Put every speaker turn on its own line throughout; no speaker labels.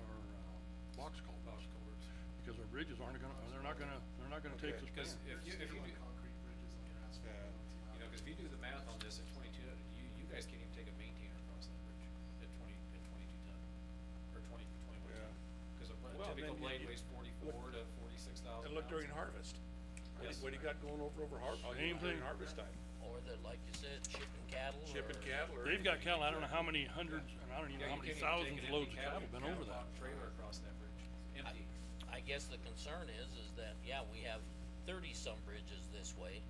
uh, box cul- box culverts, because our bridges aren't gonna, they're not gonna, they're not gonna take the span.
Okay.
Cause if you, if you do,
concrete bridges on your asphalt.
Yeah.
you know, 'cause if you do the math on this at twenty-two, you, you guys can't even take a maintainer across that bridge at twenty, at twenty-two ton, or twenty, twenty-one ton.
Yeah.
Cause a bu-
Well, then
typical
you-
blade
you-
weighs forty-four to forty-six thousand pounds.
And look during harvest. What do you-
Yes.
What do you got going over, over har- oh,
Same
yeah, during
thing.
harvest time?
Or that, like you said, shipping cattle or.
Shipping cattle or?
They've got
anything.
cattle, I don't know how many hundreds, and I don't even know
Yeah,
how
you
many
can't even
thousands
take an
of
empty
loads of cattle
cattle-
been over that.
cattle box Trailer across that bridge, empty.
I guess the concern is, is that, yeah, we have thirty-some bridges this way,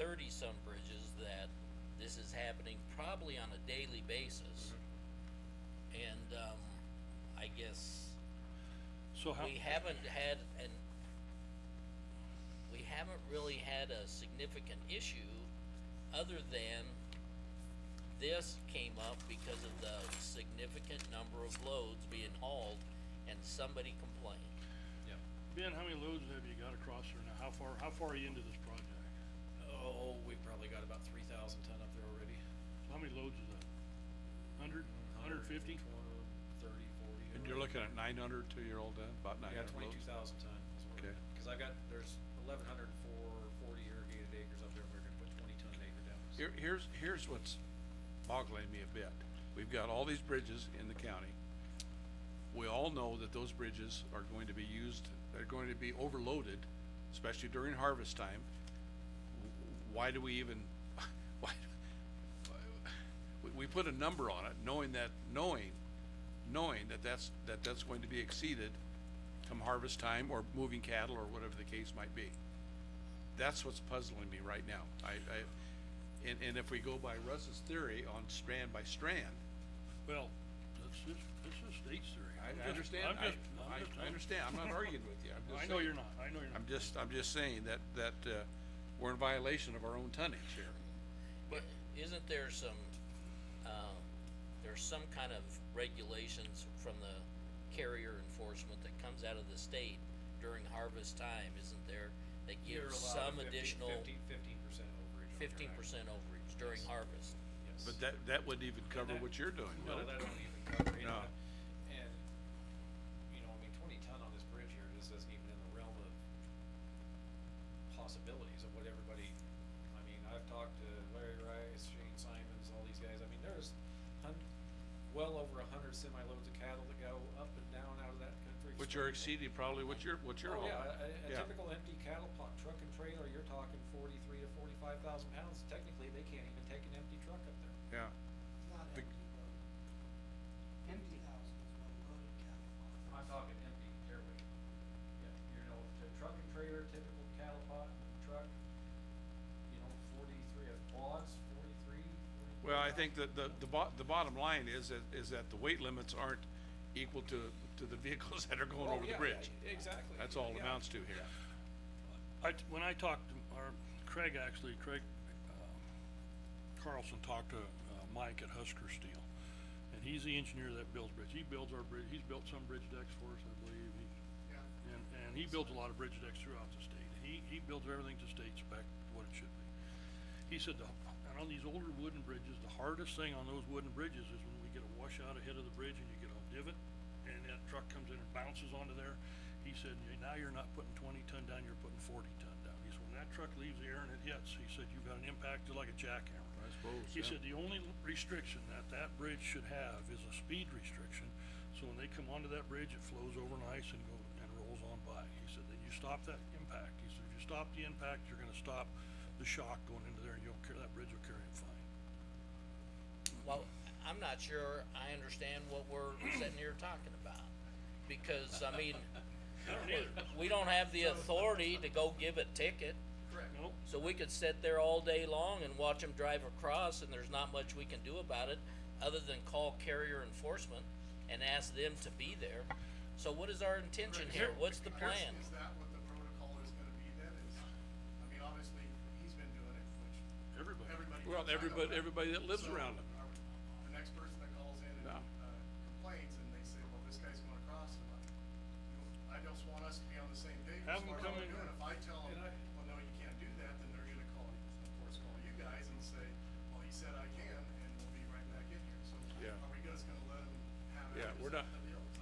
thirty-some bridges that this is happening probably on a daily basis.
Mm-hmm.
And, um, I guess
So how,
we haven't had an, we haven't really had a significant issue other than this came up because of the significant number of loads being hauled and somebody complained.
Yeah.
Ben, how many loads have you got across there now? How far, how far are you into this project?
Oh, we probably got about three thousand ton up there already.
So How many loads is that? Hundred, hundred fifty?
120, Thirty, forty.
And you're looking at nine hundred to your old, uh, about nine
Yeah,
hundred
twenty-two
loads?
thousand ton is what we're
Okay.
at. cause I've got, there's eleven hundred and four, forty irrigated acres up there, we're gonna put twenty ton an acre down. so-
Here, here's, here's what's boggling me a bit. We've got all these bridges in the county. We all know that those bridges are going to be used, they're going to be overloaded, especially during harvest time. W- Why do we even, why, why- we, we put a number on it, knowing that, knowing, knowing that that's, that that's going to be exceeded come harvest time or moving cattle or whatever the case might be. That's what's puzzling me right now. I, I, and, and if we go by Russ's theory on strand by strand,
Well, that's just, that's just state theory.
I,
I'm
I
just-
understand,
I'm
I,
just- I'm just-
I, I
I'm-
understand, I'm not arguing with you, I'm just
I
saying.
know you're not, I know you're not.
I'm just, I'm just saying that, that, uh, we're in violation of our own tonnage here.
But isn't there some, uh, there's some kind of regulations from the carrier enforcement that comes out of the state during harvest time, isn't there? That
You're
gives
allowed
some
a 50
additional
15 percent overage. on
fifteen
your
percent overage during
Yes.
harvest.
ag- yes.
But that, that wouldn't even cover
that-
what you're doing,
No,
would
that
it?
don't even cover it.
No.
And, you know, I mean, twenty ton on this bridge here just isn't even in the realm of possibilities of what everybody, I mean, I've talked to Larry Rice, Shane Simons, all these guys, I mean, there's hun- well over a hundred semi loads of cattle that go up and down out of that country.
Which are
extremely-
exceeding probably what you're, what you're
Oh,
hauling.
yeah, a- a, a
Yeah.
typical empty cattle pot, truck and trailer, you're talking forty-three to forty-five thousand pounds, technically, they can't even take an empty truck up there.
Yeah,
It's not
The-
empty though. Empty thousand is what loaded cattle are.
I'm talking empty airway. Yeah, you know, the truck and trailer, typical cattle pot, truck, you know, forty-three, of quads, forty-three.
well, I think that the, the bo- the bottom line is that, is that the weight limits aren't equal to, to the vehicles that are
Oh,
going over the bridge.
Exactly.
That's all
yeah.
it amounts to here.
I, t- when I talked to, or Craig actually, Craig, um, Carlson talked to, uh, Mike at Husker Steel. And he's the engineer that builds bridge. He builds our bridge, he's built some bridge decks for us, I believe. He- And, and he builds a lot of bridge decks throughout the state. He, he builds everything to state spec, what it should be. He said, the- and on these older wooden bridges, the hardest thing on those wooden bridges is when we get a washout ahead of the bridge and you get a divot and that truck comes in and bounces onto there. He said, "Yeah, now you're not putting twenty ton down, you're putting forty ton down. He said, when that truck leaves the air and it hits, he said, you've got an impact just like a jackhammer.
I suppose,
He
yeah.
said, the only l- restriction that that bridge should have is a speed restriction. So when they come onto that bridge, it flows over nice and go, and rolls on by. He said, then you stop that impact. He said, if you stop the impact, you're gonna stop the shock going into there and you'll carry, that bridge will carry it fine.
Well, I'm not sure I understand what we're sitting here talking about, because, I mean,
I don't either.
we don't have the authority to go give a ticket.
Correct.
Nope.
So we could sit there all day long and watch them drive across and there's not much we can do about it other than call carrier enforcement and ask them to be there. So what is our intention here? What's the
Here's-
plan?
Is that what the protocol is gonna be then, is, I mean, obviously, he's been doing it, which
Everybody.
everybody.
Well,
knows I know
everybody-
that.
everybody that lives
So,
around him.
are- The next person that calls in
No.
and, uh, complains, and they say, well, this guy's going across, and I, you know, I just want us to be on the same page.
Have
as
him
far as
come
what
in
we're doing. If I tell
And
them,
I-
well, no, you can't do that, then they're gonna call, of course, call you guys and say, well, he said I can, and we'll be right back in here, so.
Yeah.
Are we just gonna let him have
Yeah,
it?
we're not,